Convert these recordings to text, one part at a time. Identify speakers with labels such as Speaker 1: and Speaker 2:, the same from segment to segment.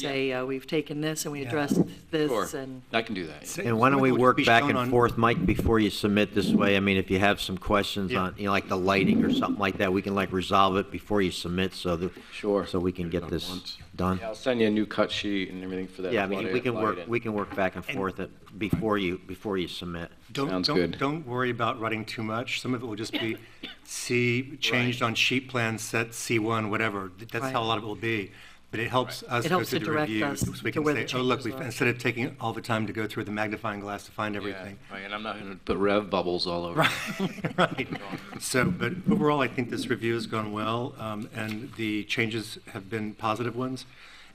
Speaker 1: say, uh, we've taken this and we
Speaker 2: Yeah.
Speaker 1: addressed this
Speaker 3: Sure,
Speaker 1: and.
Speaker 3: I can do that.
Speaker 4: And why don't we
Speaker 2: Which would
Speaker 4: work
Speaker 2: be
Speaker 4: back
Speaker 2: shown
Speaker 4: and
Speaker 2: on-
Speaker 4: forth, Mike, before you submit this way? I mean, if you have some questions
Speaker 2: Yeah.
Speaker 4: on, you know, like the lighting or something like that, we can like resolve it before you submit, so that.
Speaker 3: Sure.
Speaker 4: So we can get this done.
Speaker 3: Yeah, I'll send you a new cut sheet and everything for that.
Speaker 4: Yeah, I mean, we can work, we
Speaker 3: lighting.
Speaker 4: can work back and
Speaker 2: And-
Speaker 4: forth it before you, before you submit.
Speaker 2: Don't-
Speaker 3: Sounds
Speaker 2: don't-
Speaker 3: good.
Speaker 2: Don't worry about writing too much. Some of it will just be C, changed on sheet plan, set C1, whatever. That's how a
Speaker 1: Right.
Speaker 2: lot of it will be. But it helps us
Speaker 1: It
Speaker 2: go
Speaker 1: helps
Speaker 2: through
Speaker 1: to
Speaker 2: the
Speaker 1: direct
Speaker 2: review.
Speaker 1: us
Speaker 2: So we
Speaker 1: to
Speaker 2: can
Speaker 1: where the
Speaker 2: say, oh, look,
Speaker 1: changes
Speaker 2: we've,
Speaker 1: are."
Speaker 2: instead of taking all the time to go through the magnifying glass to find
Speaker 3: Yeah,
Speaker 2: everything.
Speaker 3: Right, and I'm not going to put rev bubbles all over.
Speaker 2: Right. So, but overall, I think this review has gone well, um, and the changes have been positive ones.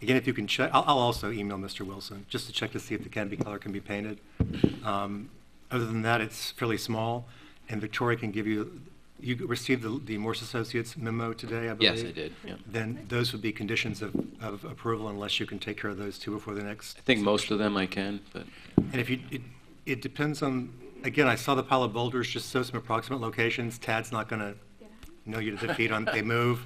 Speaker 2: Again, if you can check, I'll, I'll also email Mr. Wilson, just to check to see if the canopy color can be painted. Um, Other than that, it's fairly small, and Victoria can give you, you received the, the Morse Associates memo today, I believe?
Speaker 3: Yes, I did, yeah.
Speaker 2: Then those would be conditions of, of approval unless you can take care of those two before the next
Speaker 3: I think most of them I can, but
Speaker 2: and if you, it, it depends on, again, I saw the pile of boulders, just so some approximate locations. Tad's not gonna know you to the feet on, they move,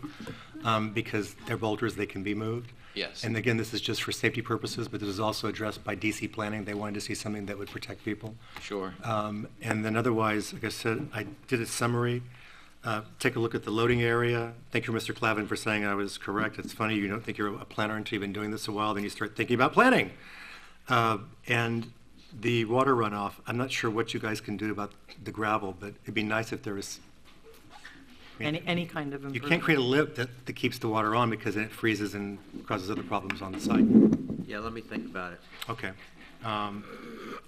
Speaker 2: um, because they're boulders, they can be moved.
Speaker 3: Yes.
Speaker 2: And again, this is just for safety purposes, but this is also addressed by DC planning. They wanted to see something that would protect people.
Speaker 3: sure.
Speaker 2: Um, And then otherwise, like I said, I did a summary. Uh, Take a look at the loading area. Thank you, Mr. Clavin, for saying I was correct. It's funny, you don't think you're a planner until you've been doing this a while, then you start thinking about planning. Uh, And the water runoff, I'm not sure what you guys can do about the gravel, but it'd be nice if there was,
Speaker 1: Any, any kind of
Speaker 2: you
Speaker 1: improvement.
Speaker 2: can't create a lip that, that keeps the water on because then it freezes and causes other problems on the site.
Speaker 4: Yeah, let me think about it.
Speaker 2: Okay. Um,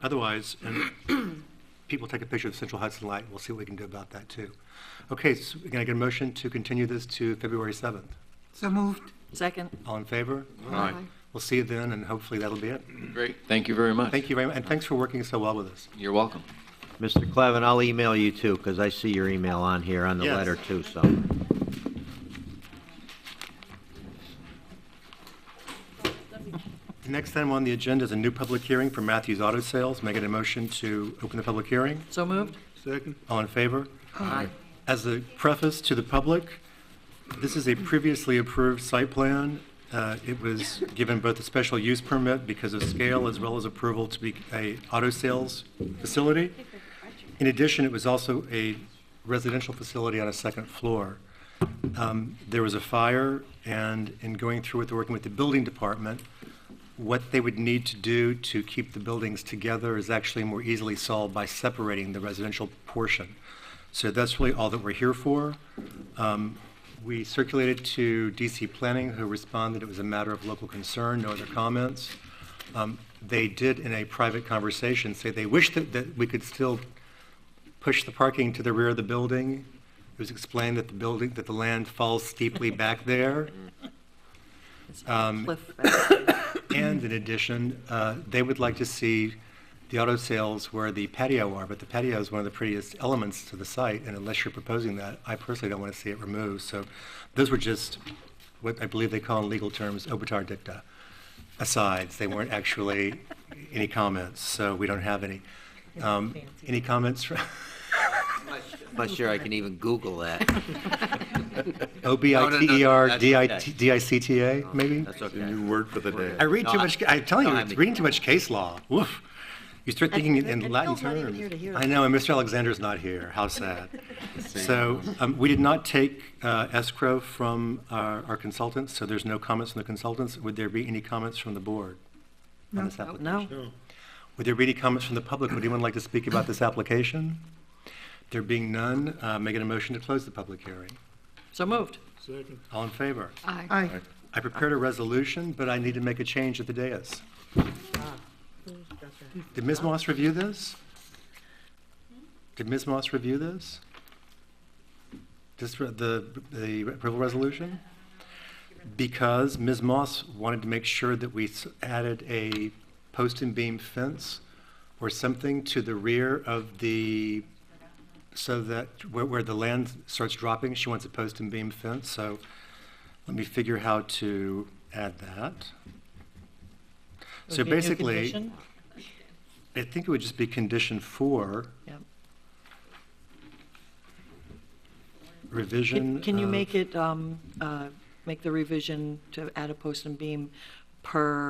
Speaker 2: Otherwise, and people take a picture of Central Hudson Light, we'll see what we can do about that, too. Okay, so can I get a motion to continue this to February 7th?
Speaker 5: So moved.
Speaker 1: Second,
Speaker 2: All in favor?
Speaker 3: All right,
Speaker 2: We'll see you then, and hopefully that'll be it.
Speaker 3: great, thank you very much.
Speaker 2: Thank you very much, and thanks for working so well with us.
Speaker 3: You're welcome.
Speaker 4: Mr. Clevin, I'll email you too, because I see your email on here, on the
Speaker 2: Yes.
Speaker 4: letter too, so.
Speaker 2: The next item on the agenda is a new public hearing for Matthews Auto Sales. May I get a motion to open the public hearing?
Speaker 1: so moved?
Speaker 2: Second. All in favor?
Speaker 1: Aye.
Speaker 2: As a preface to the public, this is a previously approved site plan. Uh, It was given both a special use permit because of scale as well as approval to be a auto sales facility. In addition, it was also a residential facility on a second floor. Um, There was a fire, and in going through with, working with the building department, what they would need to do to keep the buildings together is actually more easily solved by separating the residential portion. So that's really all that we're here for. Um, We circulated to DC Planning, who responded it was a matter of local concern, no other comments. Um, They did, in a private conversation, say they wish that, that we could still push the parking to the rear of the building. It was explained that the building, that the land falls steeply back there.
Speaker 1: It's
Speaker 2: Um,
Speaker 1: Cliff, actually.
Speaker 2: And in addition, uh, they would like to see the auto sales where the patio are, but the patio is one of the prettiest elements to the site, and unless you're proposing that, I personally don't want to see it removed. So those were just what I believe they call in legal terms, obitur dicta, asides. They weren't actually any comments, so we don't have any. Um, Any comments? from-
Speaker 4: I'm not sure I can even Google that.
Speaker 2: E
Speaker 4: E
Speaker 2: O-B-I-T-E-R-D-I-T- D-I-C-T-A, maybe?
Speaker 4: That's okay.
Speaker 6: New word for the day.
Speaker 2: I read too
Speaker 4: No, I-
Speaker 2: much, I'm telling you,
Speaker 4: no, I
Speaker 2: it's
Speaker 4: mean-
Speaker 2: reading too much case law. Woof. You start thinking in-
Speaker 1: and
Speaker 2: in Latin
Speaker 1: Phil's not even here to
Speaker 2: terms.
Speaker 1: hear
Speaker 2: I know, and Mr. Alexander's not here. How sad. So um, we did not take uh, escrow from our our consultants, so there's no comments from the consultants. Would there be any comments from the board on this application?
Speaker 1: No,
Speaker 2: Would there be any comments from the public? Would anyone like to speak about this application? There being none, uh, make it a motion to close the public hearing.
Speaker 1: so moved.
Speaker 2: All in favor?
Speaker 5: Aye.
Speaker 2: I prepared a resolution, but I need to make a change at the dais. Did Ms. Moss review this? Did Ms. Moss review this? Just re- the, the approval resolution? Because Ms. Moss wanted to make sure that we s- added a post and beam fence or something to the rear of the, so that where, where the land starts dropping, she wants a post and beam fence, so let me figure how to add that. So basically, I think it would just be condition four,
Speaker 1: Yep.
Speaker 2: revision
Speaker 1: Can can you
Speaker 2: of-
Speaker 1: uh, make it, um, uh, make the revision to add a post and beam per